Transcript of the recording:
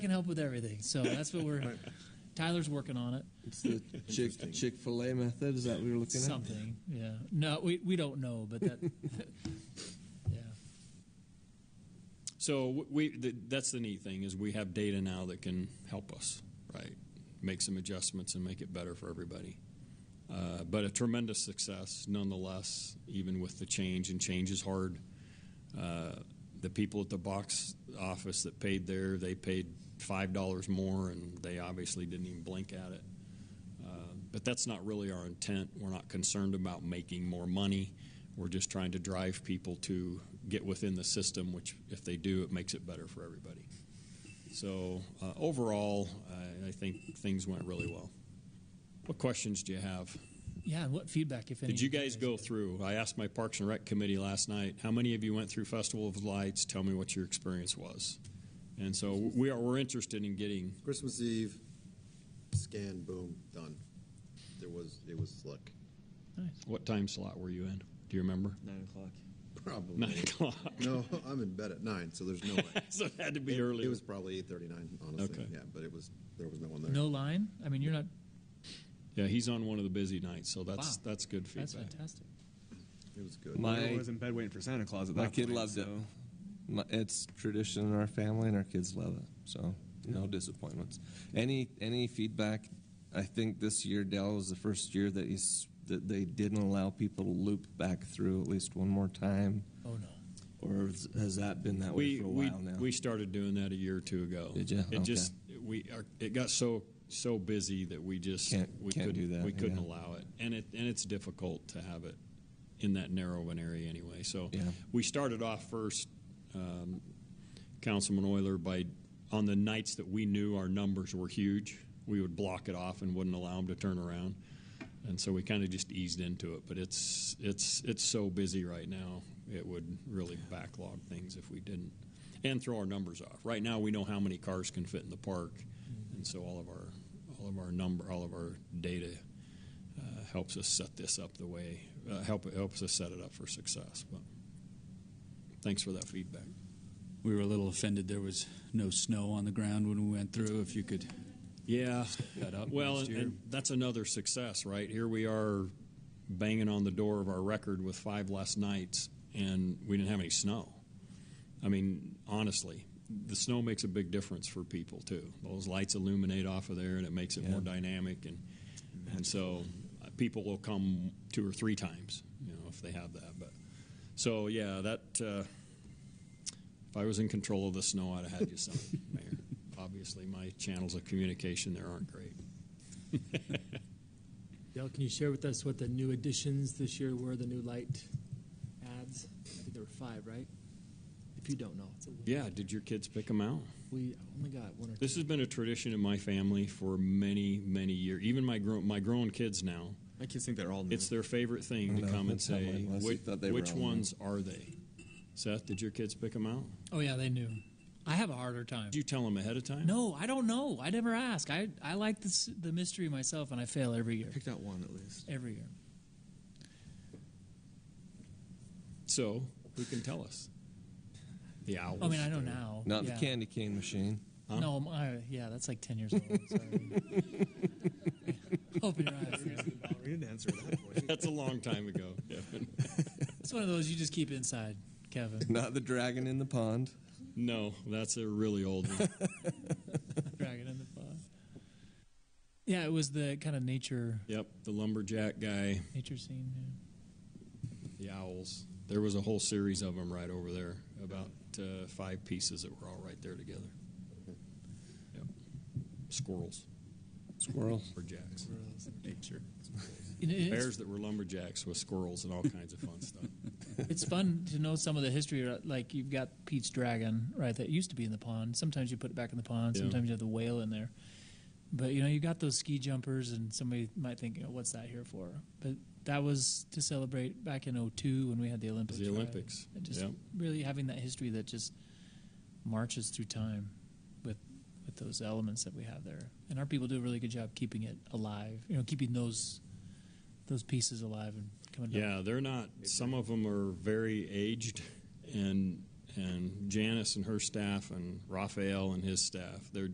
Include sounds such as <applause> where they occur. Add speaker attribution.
Speaker 1: can help with everything. <laughs> So that's what we're. Tyler's working on it.
Speaker 2: It's the Chick Chick Fil A method. Is that what we were looking at?
Speaker 1: Something. Yeah. No, we we don't know, but that. <laughs> yeah.
Speaker 3: So we th- that's the neat thing is we have data now that can help us, right? Make some adjustments and make it better for everybody. Uh, but a tremendous success nonetheless, even with the change, and change is hard. Uh, the people at the box office that paid there, they paid five dollars more, and they obviously didn't even blink at it. Uh, but that's not really our intent. We're not concerned about making more money. We're just trying to drive people to get within the system, which, if they do, it makes it better for everybody. So, uh, overall, I, I think things went really well. What questions do you have?
Speaker 1: Yeah. And what feedback, if any?
Speaker 3: Did you guys go through? I asked my Parks and Rec committee last night, how many of you went through Festival of Lights? Tell me what your experience was. And so we are we're interested in getting
Speaker 4: Christmas Eve, scan, boom, done. There was it was slick.
Speaker 3: what time slot were you in? Do you remember? <laughs>
Speaker 2: Nine o'clock.
Speaker 4: Probably
Speaker 3: Nine o'clock.
Speaker 4: <laughs>
Speaker 3: <laughs>
Speaker 4: No, I'm in bed at nine, so there's no way.
Speaker 3: so it had to be
Speaker 4: it,
Speaker 3: early.
Speaker 4: It was probably eight thirty nine, honestly.
Speaker 3: Okay.
Speaker 4: Yeah, but it was there was no one there.
Speaker 1: No line. I mean, you're not.
Speaker 3: yeah, he's on one of the busy nights, so that's
Speaker 1: Wow.
Speaker 3: that's good feedback.
Speaker 1: That's fantastic.
Speaker 4: It was good.
Speaker 5: I
Speaker 2: My
Speaker 5: was in bed waiting for Santa Claus at that
Speaker 2: my kid
Speaker 5: point,
Speaker 2: loved it.
Speaker 5: so-
Speaker 2: My, it's tradition in our family, and our kids love it. So no disappointments. Any any feedback? I think this year Dell was the first year that he's that they didn't allow people to loop back through at least one more time.
Speaker 1: Oh no.
Speaker 2: Or has- has that been that way
Speaker 3: we
Speaker 2: for a
Speaker 3: we,
Speaker 2: while now?
Speaker 3: we started doing that a year or two ago.
Speaker 2: Did ya?
Speaker 3: It
Speaker 2: Okay.
Speaker 3: just we are, it got so so busy that we just
Speaker 2: Can't-
Speaker 3: we
Speaker 2: can't
Speaker 3: couldn't
Speaker 2: do that,
Speaker 3: we couldn't
Speaker 2: yeah.
Speaker 3: allow it, and it and it's difficult to have it in that narrow an area anyway. So
Speaker 2: Yeah.
Speaker 3: we started off first, um, Councilman Euler, by on the nights that we knew our numbers were huge, we would block it off and wouldn't allow them to turn around. And so we kind of just eased into it, but it's it's it's so busy right now. It would really backlog things if we didn't, and throw our numbers off. Right now, we know how many cars can fit in the park, and so all of our all of our number all of our data uh, helps us set this up the way uh, help helps us set it up for success. But thanks for that feedback.
Speaker 6: We were a little offended there was no snow on the ground when we went through. If you could,
Speaker 3: Yeah.
Speaker 6: that up
Speaker 3: Well,
Speaker 6: next
Speaker 3: and,
Speaker 6: year.
Speaker 3: and that's another success, right? Here we are banging on the door of our record with five less nights, and we didn't have any snow. I mean, honestly, the snow makes a big difference for people too. Those lights illuminate off of there, and it makes it more dynamic, and and so uh, people will come two or three times, you know, if they have that. But so yeah, that uh, if I was in control of the snow, I'd have had you some, <laughs> Mayor. Obviously, my channels of communication there aren't great.
Speaker 7: Dale, can you share with us what the new additions this year were, the new light ads? I think there were five, right? If you don't know, it's a little-
Speaker 3: Yeah, did your kids pick them out?
Speaker 7: we only got one or
Speaker 3: This
Speaker 7: two.
Speaker 3: has been a tradition in my family for many, many years. Even my grown my grown kids now,
Speaker 5: My kids think they're all new.
Speaker 3: it's their favorite thing to
Speaker 2: No,
Speaker 3: come and
Speaker 2: that's how
Speaker 3: say,
Speaker 2: mine was.
Speaker 3: "Which,
Speaker 2: I thought they were
Speaker 3: which
Speaker 2: all new."
Speaker 3: ones are they?" Seth, did your kids pick them out?
Speaker 1: Oh yeah, they knew. I have a harder time.
Speaker 3: Did you tell them ahead of time?
Speaker 1: No, I don't know. I never ask. I I like this, the mystery myself, and I fail every year.
Speaker 5: picked out one
Speaker 1: <laughs>
Speaker 5: at least.
Speaker 1: Every year.
Speaker 3: So who can tell us? The owls.
Speaker 1: I mean, I know now.
Speaker 2: Not
Speaker 1: yeah.
Speaker 2: the candy cane machine.
Speaker 1: No, my, yeah, that's like ten years old. Sorry. <laughs> Open your eyes.
Speaker 5: Ballerina dancer at that
Speaker 3: <laughs>
Speaker 5: point.
Speaker 3: That's a long time ago. Kevin.
Speaker 1: It's one of those you just keep inside, Kevin. <laughs>
Speaker 2: Not the dragon in the pond.
Speaker 3: No, that's a really old one.
Speaker 1: Dragon in the pod. Yeah, it was the kind of nature
Speaker 3: yep, the lumberjack guy,
Speaker 1: nature scene. Yeah.
Speaker 3: the owls. There was a whole series of them right over there, about uh, five pieces that were all right there together. Yep. Squirrels,
Speaker 2: Squirrel.
Speaker 3: lumberjacks,
Speaker 5: Nature.
Speaker 1: You know, it's-
Speaker 3: bears that were lumberjacks with squirrels and all kinds of fun stuff.
Speaker 1: It's fun to know some of the history. uh, Like you've got Pete's dragon, right? That used to be in the pond. Sometimes you put it back in the pond.
Speaker 3: Yeah.
Speaker 1: Sometimes you have the whale in there. But you know, you got those ski jumpers, and somebody might think, you know, "What's that here for?" But that was to celebrate back in '02 when we had the Olympics.
Speaker 3: The
Speaker 1: right?
Speaker 3: Olympics,
Speaker 1: And just
Speaker 3: yeah.
Speaker 1: really having that history that just marches through time with with those elements that we have there, and our people do a really good job keeping it alive. You know, keeping those those pieces alive and coming back.
Speaker 3: Yeah, they're not. Some of them are very aged, and and Janice and her staff, and Raphael and his staff. They're